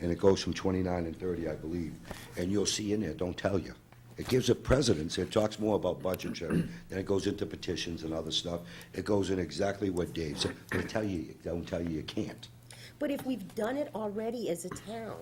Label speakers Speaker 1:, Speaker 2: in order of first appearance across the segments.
Speaker 1: and it goes from 29 and 30, I believe. And you'll see in there, don't tell you. It gives a precedence, it talks more about budgetary, then it goes into petitions and other stuff. It goes in exactly what Dave said, they tell you, don't tell you you can't.
Speaker 2: But if we've done it already as a town.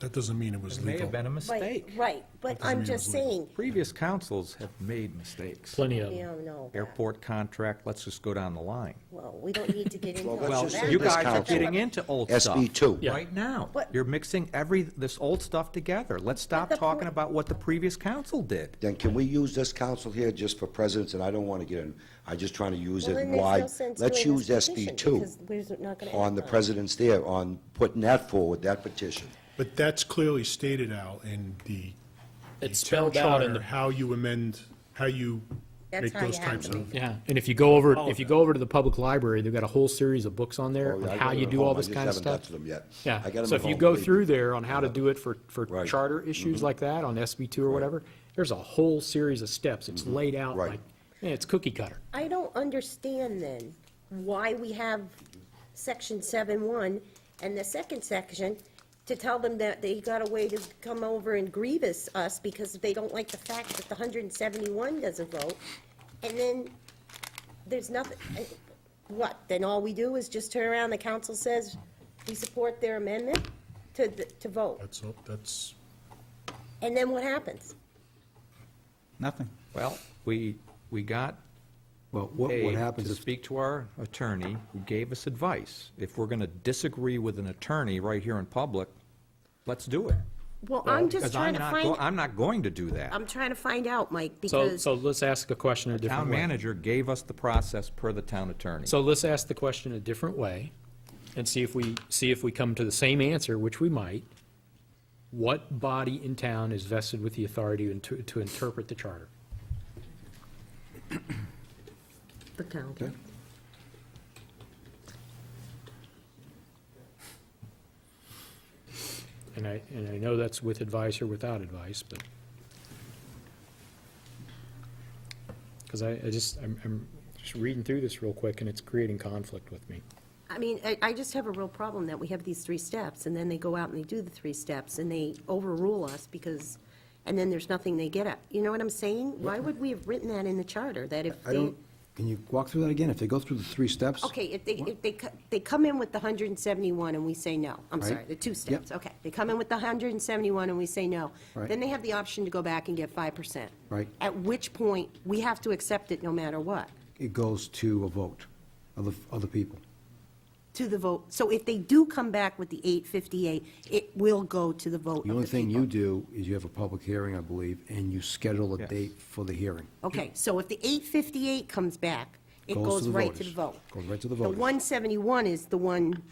Speaker 3: That doesn't mean it was
Speaker 4: It
Speaker 3: legal.
Speaker 4: may have been a
Speaker 2: Right,
Speaker 4: mistake.
Speaker 2: Right, but
Speaker 3: Doesn't
Speaker 2: I'm
Speaker 3: mean
Speaker 2: just
Speaker 3: it's legal.
Speaker 2: saying,
Speaker 4: Previous councils have made mistakes.
Speaker 5: Plenty of
Speaker 2: we
Speaker 5: them.
Speaker 2: don't know. that.
Speaker 4: Airport contract, let's just go down the line.
Speaker 2: Well, we don't need to get into
Speaker 1: Well,
Speaker 2: all
Speaker 1: let's
Speaker 4: Well,
Speaker 1: just say
Speaker 2: that.
Speaker 4: you
Speaker 1: this
Speaker 4: guys are
Speaker 1: council-
Speaker 4: getting into old stuff.
Speaker 1: SB two. Yeah.
Speaker 4: Right now.
Speaker 2: But-
Speaker 4: You're mixing every, this old stuff together. Let's stop
Speaker 2: the
Speaker 4: talking
Speaker 2: point-
Speaker 4: about what the previous council did.
Speaker 1: Then can we use this council here just for precedence, and I don't want to get in, I'm just trying to use
Speaker 2: Well,
Speaker 1: it
Speaker 2: then there's
Speaker 1: wide.
Speaker 2: no sense
Speaker 1: Let's
Speaker 2: doing
Speaker 1: use
Speaker 2: this petition,
Speaker 1: SB two
Speaker 2: because we're not gonna
Speaker 1: on the
Speaker 2: act on it.
Speaker 1: president's there, on putting that forward, that petition.
Speaker 3: But that's clearly stated out in the the
Speaker 5: It's
Speaker 3: town
Speaker 5: spelled out in
Speaker 3: charter,
Speaker 5: the,
Speaker 3: how you amend, how you
Speaker 2: That's
Speaker 3: make
Speaker 2: how you
Speaker 3: those
Speaker 2: have
Speaker 3: types
Speaker 2: to
Speaker 3: of.
Speaker 5: yeah, and if you go over,
Speaker 4: All
Speaker 5: if
Speaker 4: of
Speaker 5: you
Speaker 4: it.
Speaker 5: go over to the public library, they've got a whole series of books on there
Speaker 1: Oh,
Speaker 5: on
Speaker 1: yeah, I
Speaker 5: how
Speaker 1: got
Speaker 5: you
Speaker 1: it
Speaker 5: do
Speaker 1: at
Speaker 5: all
Speaker 1: home. I
Speaker 5: this
Speaker 1: just
Speaker 5: kind of
Speaker 1: haven't got
Speaker 5: stuff.
Speaker 1: to them yet. I got
Speaker 5: Yeah,
Speaker 1: 'em
Speaker 5: so
Speaker 1: at
Speaker 5: if you
Speaker 1: home,
Speaker 5: go
Speaker 1: believe me.
Speaker 5: through there on how to do it for, for
Speaker 1: Right. Mm-hmm.
Speaker 5: charter issues like that, on SB two or whatever, there's a whole series of steps, it's laid out
Speaker 1: Mm-hmm. Right.
Speaker 5: like, man, it's cookie cutter.
Speaker 2: I don't understand then why we have section seven one and the second section to tell them that they got a way to come over and grievous us because they don't like the fact that the hundred and seventy-one doesn't vote. And then there's nothing, I- what, then all we do is just turn around, the council says we support their amendment to, the- to vote.
Speaker 3: That's, all- that's,
Speaker 2: And then what happens?
Speaker 6: Nothing.
Speaker 4: Well, we, we got
Speaker 7: Well, what, what
Speaker 4: Dave
Speaker 7: happens
Speaker 4: to
Speaker 7: if,
Speaker 4: speak to our attorney who gave us advice. If we're going to disagree with an attorney right here in public, let's do it.
Speaker 2: Well, I'm just
Speaker 4: Because
Speaker 2: trying
Speaker 4: I'm
Speaker 2: to
Speaker 4: not, go-
Speaker 2: find,
Speaker 4: I'm not going to do that.
Speaker 2: I'm trying to find out, Mike,
Speaker 5: So,
Speaker 2: because.
Speaker 5: so let's ask the question a
Speaker 4: Town
Speaker 5: different way.
Speaker 4: manager gave us the process per the town attorney.
Speaker 5: So let's ask the question a different way and see if we, see if we come to the same answer, which we might. What body in town is vested with the authority to, to interpret the charter?
Speaker 2: The county.
Speaker 5: And I, and I know that's with advice or without advice, but. Because I, I just, I'm, I'm just reading through this real quick and it's creating conflict with me.
Speaker 2: I mean, I, I just have a real problem that we have these three steps, and then they go out and they do the three steps, and they overrule us because, and then there's nothing they get at. You know what I'm saying? Why would we have written that in the charter, that if
Speaker 7: I
Speaker 2: they,
Speaker 7: don't, can you walk through that again? If they go through the three steps?
Speaker 2: okay, if they, if they, co- they come in with the hundred and seventy-one and we say no, I'm
Speaker 7: Right.
Speaker 2: sorry, the two
Speaker 7: Yep.
Speaker 2: steps, okay. They come in with the hundred and seventy-one and we say no.
Speaker 7: Right.
Speaker 2: Then they have the option to go back and get five percent.
Speaker 7: Right.
Speaker 2: At which point, we have to accept it no matter what,
Speaker 7: It goes to a vote of the, of the people.
Speaker 2: to the vote. So if they do come back with the eight fifty-eight, it will go to the vote of
Speaker 7: The only
Speaker 2: the
Speaker 7: thing
Speaker 2: people.
Speaker 7: you do is you have a public hearing, I believe, and you schedule a
Speaker 4: Yes.
Speaker 7: date for the hearing.
Speaker 2: Okay, so if the 858 comes back, it
Speaker 7: Goes to
Speaker 2: goes
Speaker 7: the
Speaker 2: right to the
Speaker 7: voters.
Speaker 2: vote.
Speaker 7: Goes right to the
Speaker 2: The
Speaker 7: voters.
Speaker 2: 171 is the one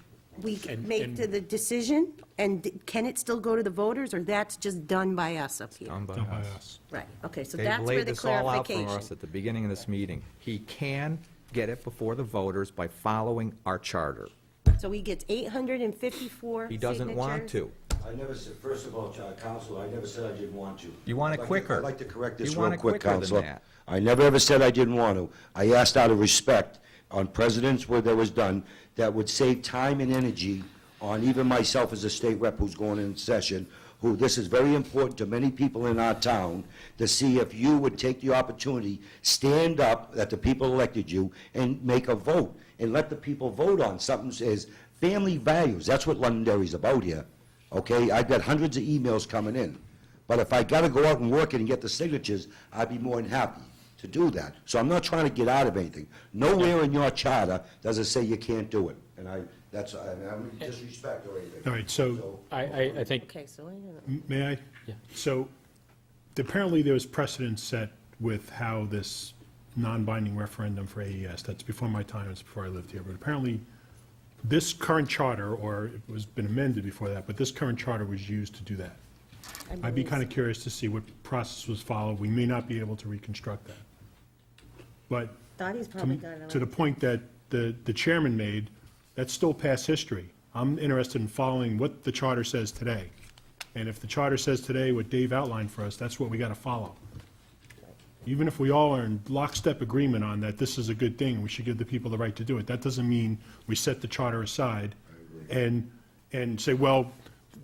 Speaker 2: we
Speaker 5: And-
Speaker 2: make
Speaker 5: and-
Speaker 2: to the decision, and d- can it still go to the voters, or that's just done by us up here?
Speaker 4: Done by
Speaker 3: done by
Speaker 4: us.
Speaker 3: us.
Speaker 2: Right, okay, so
Speaker 4: They've
Speaker 2: that's where
Speaker 4: laid
Speaker 2: the
Speaker 4: this all out for
Speaker 2: clarification.
Speaker 4: us at the beginning of this meeting. He can get it before the voters by following our charter.
Speaker 2: So he gets 854
Speaker 4: He doesn't want
Speaker 2: signatures.
Speaker 4: to.
Speaker 1: I never said, first of all, uh, Counsel, I never said I didn't want to.
Speaker 4: You want it
Speaker 1: I'd like to-
Speaker 4: quicker.
Speaker 1: I'd like to correct this
Speaker 4: You
Speaker 1: real
Speaker 4: want it
Speaker 1: quick,
Speaker 4: quicker than
Speaker 1: Counselor.
Speaker 4: that.
Speaker 1: I never ever said I didn't want to. I asked out of respect on presidents where there was done, that would save time and energy on even myself as a state rep who's going in session, who, this is very important to many people in our town, to see if you would take the opportunity, stand up, that the people elected you, and make a vote, and let the people vote on something that says, family values, that's what Londonderry's about here, okay? I've got hundreds of emails coming in. But if I gotta go out and work it and get the signatures, I'd be more than happy to do that. So I'm not trying to get out of anything. Nowhere in your charter does it say you can't do it. And I, that's, I, I'm disrespect or anything.
Speaker 3: All right, so-
Speaker 5: I, I, I think,
Speaker 2: Okay, so I don't know.
Speaker 3: M- May I?
Speaker 5: Yeah.
Speaker 3: So apparently there was precedent set with how this non-binding referendum for AES, that's before my time, it's before I lived here, but apparently this current charter, or it was been amended before that, but this current charter was used to do that. I'd be kind of curious to see what process was followed. We may not be able to reconstruct that. But
Speaker 2: Dottie's probably got it.
Speaker 3: to the point that the, the chairman made, that's still past history. I'm interested in following what the charter says today. And if the charter says today what Dave outlined for us, that's what we got to follow. Even if we all are in lockstep agreement on that this is a good thing, we should give the people the right to do it, that doesn't mean we set the charter aside and, and say, well,